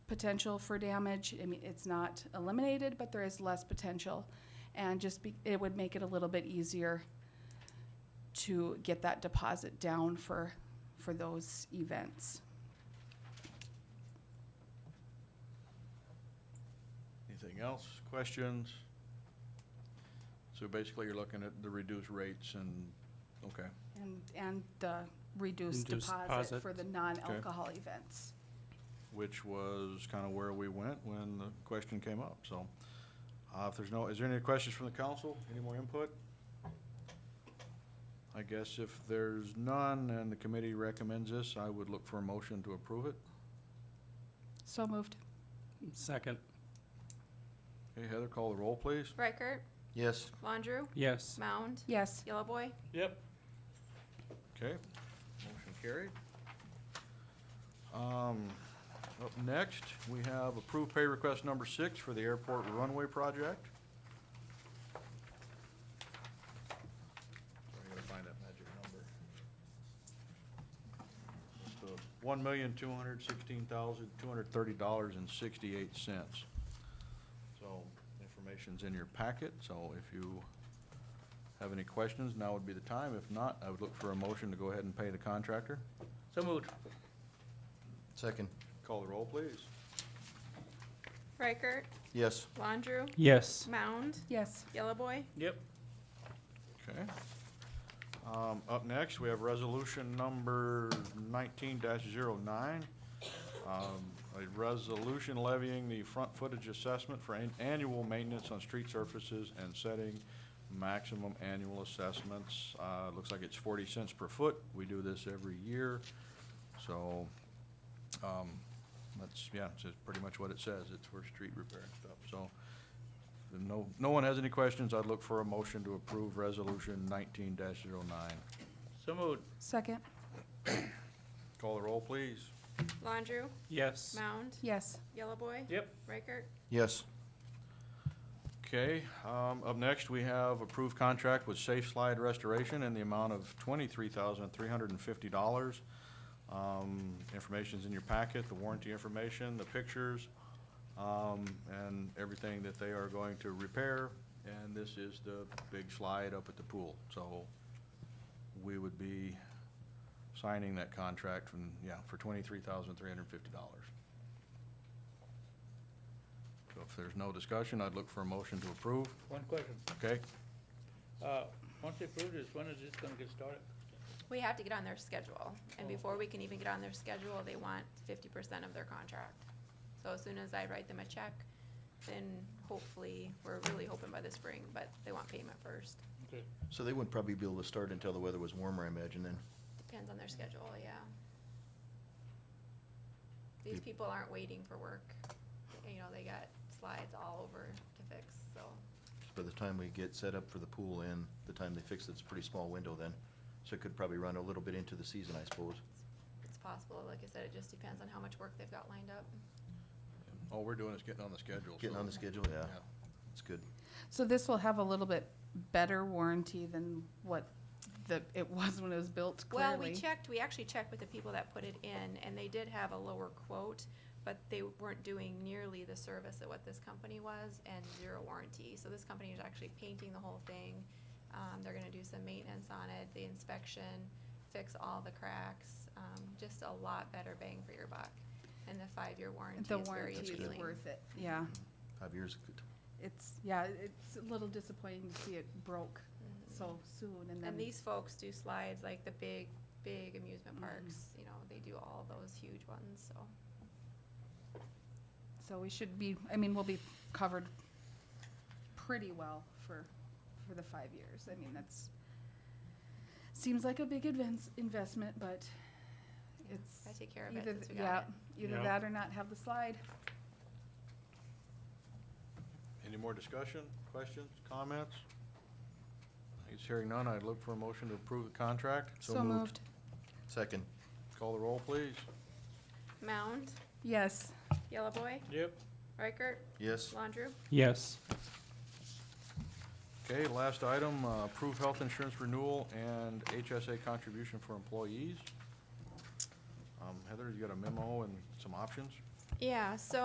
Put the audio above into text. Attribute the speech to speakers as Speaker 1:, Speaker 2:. Speaker 1: potential for damage. I mean, it's not eliminated, but there is less potential. And just be, it would make it a little bit easier to get that deposit down for, for those events.
Speaker 2: Anything else? Questions? So basically, you're looking at the reduced rates and, okay.
Speaker 1: And, and the reduced
Speaker 3: Reduced
Speaker 1: deposit
Speaker 3: deposit.
Speaker 1: for the non-alcohol events.
Speaker 2: which was kind of where we went when the question came up, so. Uh, if there's no, is there any questions from the council? Any more input? I guess if there's none and the committee recommends this, I would look for a motion to approve it.
Speaker 1: So moved.
Speaker 3: Second,
Speaker 2: Okay, Heather, call the roll, please.
Speaker 4: Reichert,
Speaker 5: Yes.
Speaker 4: Landrieu,
Speaker 3: yes.
Speaker 4: Mound,
Speaker 1: Yes.
Speaker 4: Yellow Boy,
Speaker 3: Yep.
Speaker 2: Okay, motion carried. Um, up next, we have approved pay request number six for the airport runway project. Sorry, I gotta find that magic number. One million, two hundred sixteen thousand, two hundred thirty dollars and sixty-eight cents. So, information's in your packet, so if you have any questions, now would be the time. If not, I would look for a motion to go ahead and pay the contractor.
Speaker 3: So moved.
Speaker 5: Second.
Speaker 2: Call the roll, please.
Speaker 4: Reichert,
Speaker 5: Yes.
Speaker 4: Landrieu,
Speaker 3: Yes.
Speaker 4: Mound,
Speaker 1: Yes.
Speaker 4: Yellow Boy,
Speaker 3: Yep.
Speaker 2: Okay. Um, up next, we have resolution number nineteen 9 Um, a resolution levying the front footage assessment for an annual maintenance on street surfaces and setting maximum annual assessments. Uh, looks like it's forty cents per foot. We do this every year. So, um, that's, yeah, it's just pretty much what it says. It's for street repair and stuff, so. If no, no one has any questions, I'd look for a motion to approve resolution nineteen 9
Speaker 3: So moved.
Speaker 1: Second.
Speaker 2: Call the roll, please.
Speaker 4: Landrieu,
Speaker 3: Yes.
Speaker 4: Mound,
Speaker 1: Yes.
Speaker 4: Yellow Boy,
Speaker 3: Yep.
Speaker 4: Reichert,
Speaker 5: Yes.
Speaker 2: Okay, um, up next, we have approved contract with Safe Slide Restoration in the amount of twenty-three thousand, three hundred and fifty dollars. Um, information's in your packet, the warranty information, the pictures, um, and everything that they are going to repair. And this is the big slide up at the pool, so we would be signing that contract from, yeah, for twenty-three thousand, three hundred and fifty dollars. So if there's no discussion, I'd look for a motion to approve,
Speaker 6: One question.
Speaker 2: okay?
Speaker 6: Uh, Once they approve this, when is this gonna get started?
Speaker 4: we have to get on their schedule.
Speaker 6: Oh.
Speaker 4: And before we can even get on their schedule, they want fifty percent of their contract. So as soon as I write them a check, then hopefully, we're really hoping by the spring, but they want payment first.
Speaker 6: Okay.
Speaker 5: So they wouldn't probably be able to start until the weather was warmer, I imagine, then.
Speaker 4: Depends on their schedule, yeah. These
Speaker 5: Yep.
Speaker 4: people aren't waiting for work. You know, they got slides all over to fix, so.
Speaker 5: By the time we get set up for the pool and the time they fix it, it's a pretty small window then. So it could probably run a little bit into the season, I suppose.
Speaker 4: It's possible, like I said, it just depends on how much work they've got lined up.
Speaker 2: All we're doing is getting on the schedule.
Speaker 5: Getting
Speaker 2: so-
Speaker 5: on the schedule, yeah, it's good.
Speaker 1: So this will have a little bit better warranty than what the, it was when it was built clearly.
Speaker 4: Well, we checked, we actually checked with the people that put it in, and they did have a lower quote, but they weren't doing nearly the service that what this company was and zero warranty. So this company is actually painting the whole thing. Um, they're gonna do some maintenance on it, the inspection, fix all the cracks, um, just a lot better bang for your buck. And the five-year warranty
Speaker 1: The
Speaker 4: is very
Speaker 1: warranty is
Speaker 4: appealing.
Speaker 1: worth it, yeah.
Speaker 5: Five years, good.
Speaker 1: It's, yeah, it's a little disappointing to see it broke
Speaker 4: Mhm.
Speaker 1: so soon and
Speaker 4: And
Speaker 1: then,
Speaker 4: these folks do slides like the big, big amusement
Speaker 1: Mhm.
Speaker 4: parks, you know, they do all those huge ones, so.
Speaker 1: so we should be, I mean, we'll be covered pretty well for, for the five years. I mean, that's, seems like a big advance, investment, but
Speaker 4: yeah,
Speaker 1: it's.
Speaker 4: I take care of it
Speaker 1: either
Speaker 4: since we
Speaker 1: th-
Speaker 4: got it.
Speaker 1: yeah, Either
Speaker 3: Yeah.
Speaker 1: that or not have the slide.
Speaker 2: Any more discussion, questions, comments? He's hearing none, I'd look for a motion to approve the contract.
Speaker 5: second,
Speaker 2: Call the roll, please.
Speaker 4: Mound,
Speaker 1: Yes.
Speaker 4: Yellow Boy,
Speaker 6: Yep.
Speaker 4: Riker,
Speaker 5: yes,
Speaker 4: Landrieu,
Speaker 3: Yes.
Speaker 2: Okay, last item, uh, approve health insurance renewal and HSA contribution for employees. Um, Heather, you got a memo and some options?
Speaker 4: Yeah, so